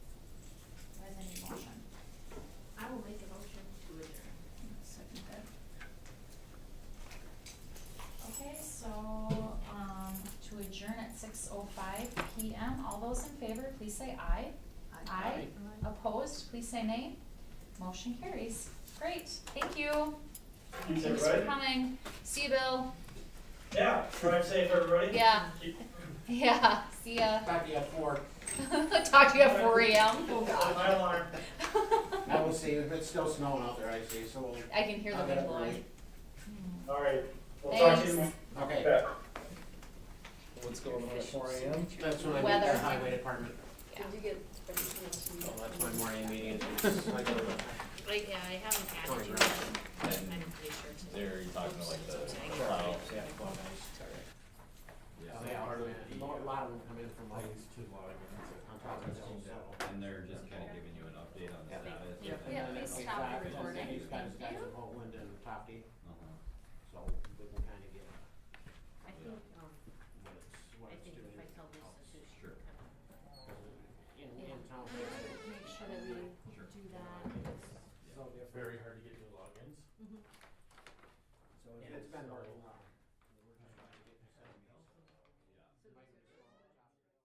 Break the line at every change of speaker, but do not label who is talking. um, oh those in favor, please say aye. Aye. Opposed, please say nay. Motion carries. Great, thank you. Thanks
Is that
for
right?
coming. See you, Bill.
Yeah, drive safe, everybody.
Yeah,
Keep-
yeah, see ya.
Back to you at four.
Talk to you at four AM. Oh,
My alarm.
I will see, if it's still snowing out there, I see, so we'll.
I can hear the
I'll get
wind
up
blowing.
early.
All right, we'll talk to
Thanks.
you
Okay,
back.
What's going on at four AM?
that's when I meet
Weather.
the highway department,
Yeah.
Did you get everything else you
so
need?
Oh, that's my morning meeting. It's like a-
Like, yeah, I haven't added you,
And
I'm pretty sure to.
they're talking to like the
Sorry.
plow.
Yeah, well, nice. Oh, yeah, hardly, a lot of them come in from like. On top of hills, so.
And they're just kinda giving you an update on the status.
Yeah,
and
Yeah,
and
then-
please
then
stop the
outside, and then
recording.
These guys, guys from Oakland and Tofty,
Uh-huh.
so we can kinda get
I think, um,
what
I
it's, what it's
think
doing.
if I tell this to Sushi,
Sure.
In, in town.
Make sure that we do that.
So different.
Very hard to get new logins.
So it's been a little while.